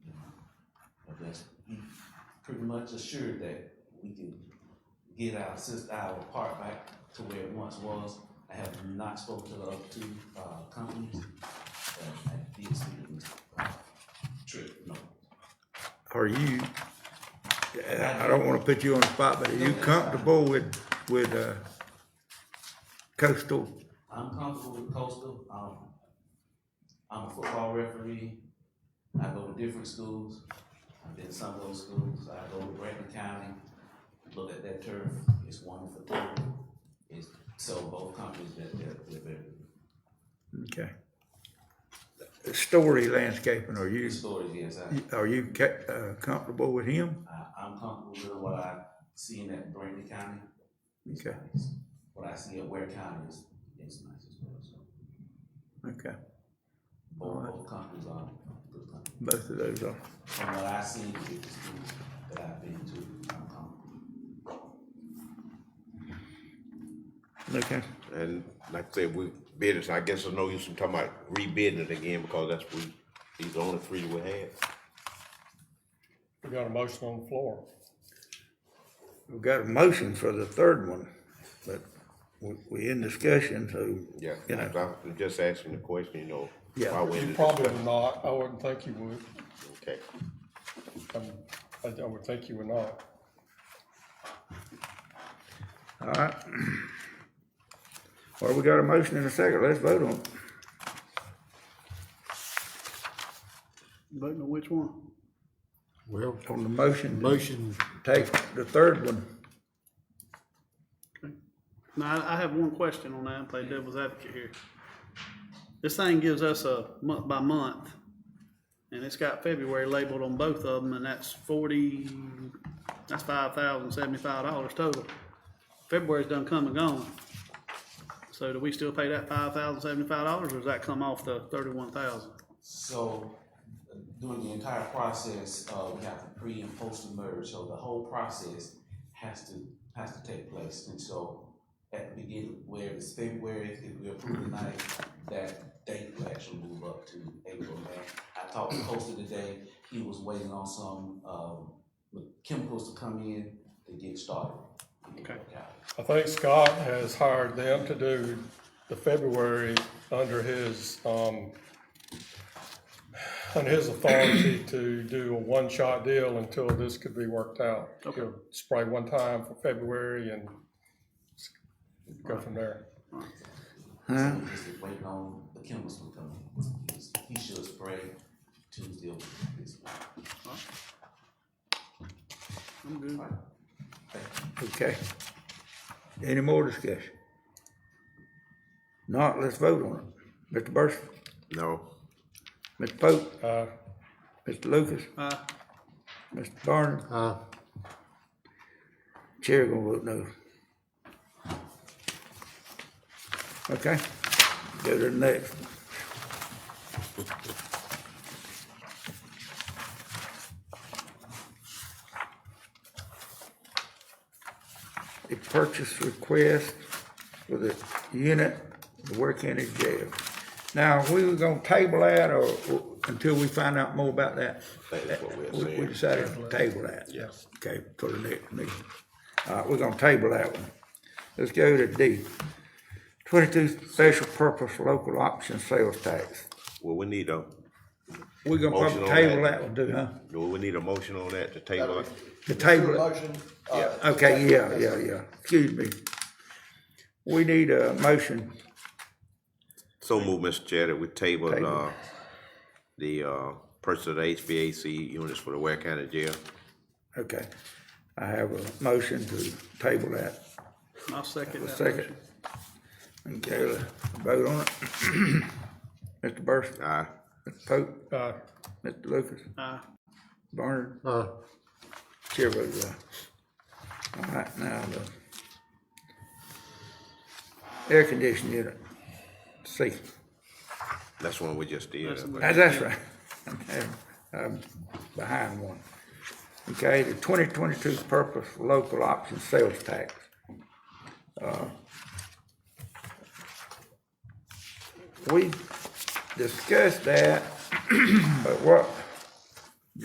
pretty much assured that we can get our system, our part back to where it once was. I have not spoken to the other two, uh, companies, but I did speak to Mr. uh, Tripp, no. Are you, I don't wanna put you on the spot, but are you comfortable with, with, uh, coastal? I'm comfortable with Coastal, um, I'm a football referee, I go to different schools, I've been to some of those schools, I go to Brandon County, look at that turf, it's one for three. It's, so both companies, that, that, that, that, Okay. Story landscaping, are you, stories, yes, I, are you ca- uh, comfortable with him? I, I'm comfortable with what I seen at Brandon County. It's Okay. nice. What I see at Ware County is, is nice as well, so, Okay, both, both companies are good companies. both of those are. from what I see with the schools that I've been to, I'm comfortable. Okay, And like I said, we bid it, so I guess there's no use in talking about rebidding it again because that's we, these are the only three we had. We got a motion on the floor. we've got a motion for the third one, but we, we in discussion, so. Yeah, You know, I was just asking the question, you know. Yeah. why we in You the probably discussion. would not, I wouldn't think you would, Okay, Um, I, I would think you would not. all right. Well, we got a motion in a second, let's vote on it. Voting on which one? Well, on the motion. to motion, Take the third one. No, I, I have one question on that, play devil's advocate here. This thing gives us a month by month, and it's got February labeled on both of them, and that's forty, that's five thousand seventy-five dollars total. February's done come and gone. So do we still pay that five thousand seventy-five dollars, or does that come off the thirty-one thousand? So uh, during the entire process, uh, we have the pre and post emerge, so the whole process has to, has to take place. And so at the beginning, where it's February, if we approve tonight, that date will actually move up to April, May. I talked to Costa today, he was waiting on some, um, chemicals to come in to get started. Okay. I think Scott has hired them to do the February under his, um, under his authority to do a one-shot deal until this could be worked out. Okay. He'll Spray one time for February and go from there. So we're just waiting on the chemist to come in. He should spray Tuesday or this week. I'm good. Okay. Any more discussion? Not, let's vote on it. Mr. Burson, no, Mr. Pope, Uh, Mr. Lucas, Uh, Mr. Barnum, uh, chair gonna vote no. Okay, go to the next. A purchase request for the unit, the Ware County Jail. Now, we were gonna table that or, or until we find out more about that. think that's what we're We- We saying. decided to table that. Yes. Okay, for the next meeting. All right, we're gonna table that one. Let's go to D. Twenty-two special purpose local option sales tax. well, we need a, We're gonna Motion probably on table that. that one too, huh? well, we need a motion on that to table it. To table it. Motion, uh, Okay, yeah, yeah, yeah. Excuse me. We need a motion. So move, Mr. Chair, that we table, Table. uh, the, uh, purchase of the HVAC units for the Ware County Jail. Okay. I have a motion to table that. I'll second A that second. motion. Okay, let's vote on it. Mr. Burson, Aye, Mr. Pope, uh, Mr. Lucas, Uh, Barnard. uh, Chair votes aye. All right, now the air conditioning unit, C. that's one we just did. That's I the think. That's, that's right. I'm- I'm behind one. Okay, the twenty twenty-two purpose local option sales tax. Uh, We discussed that, but what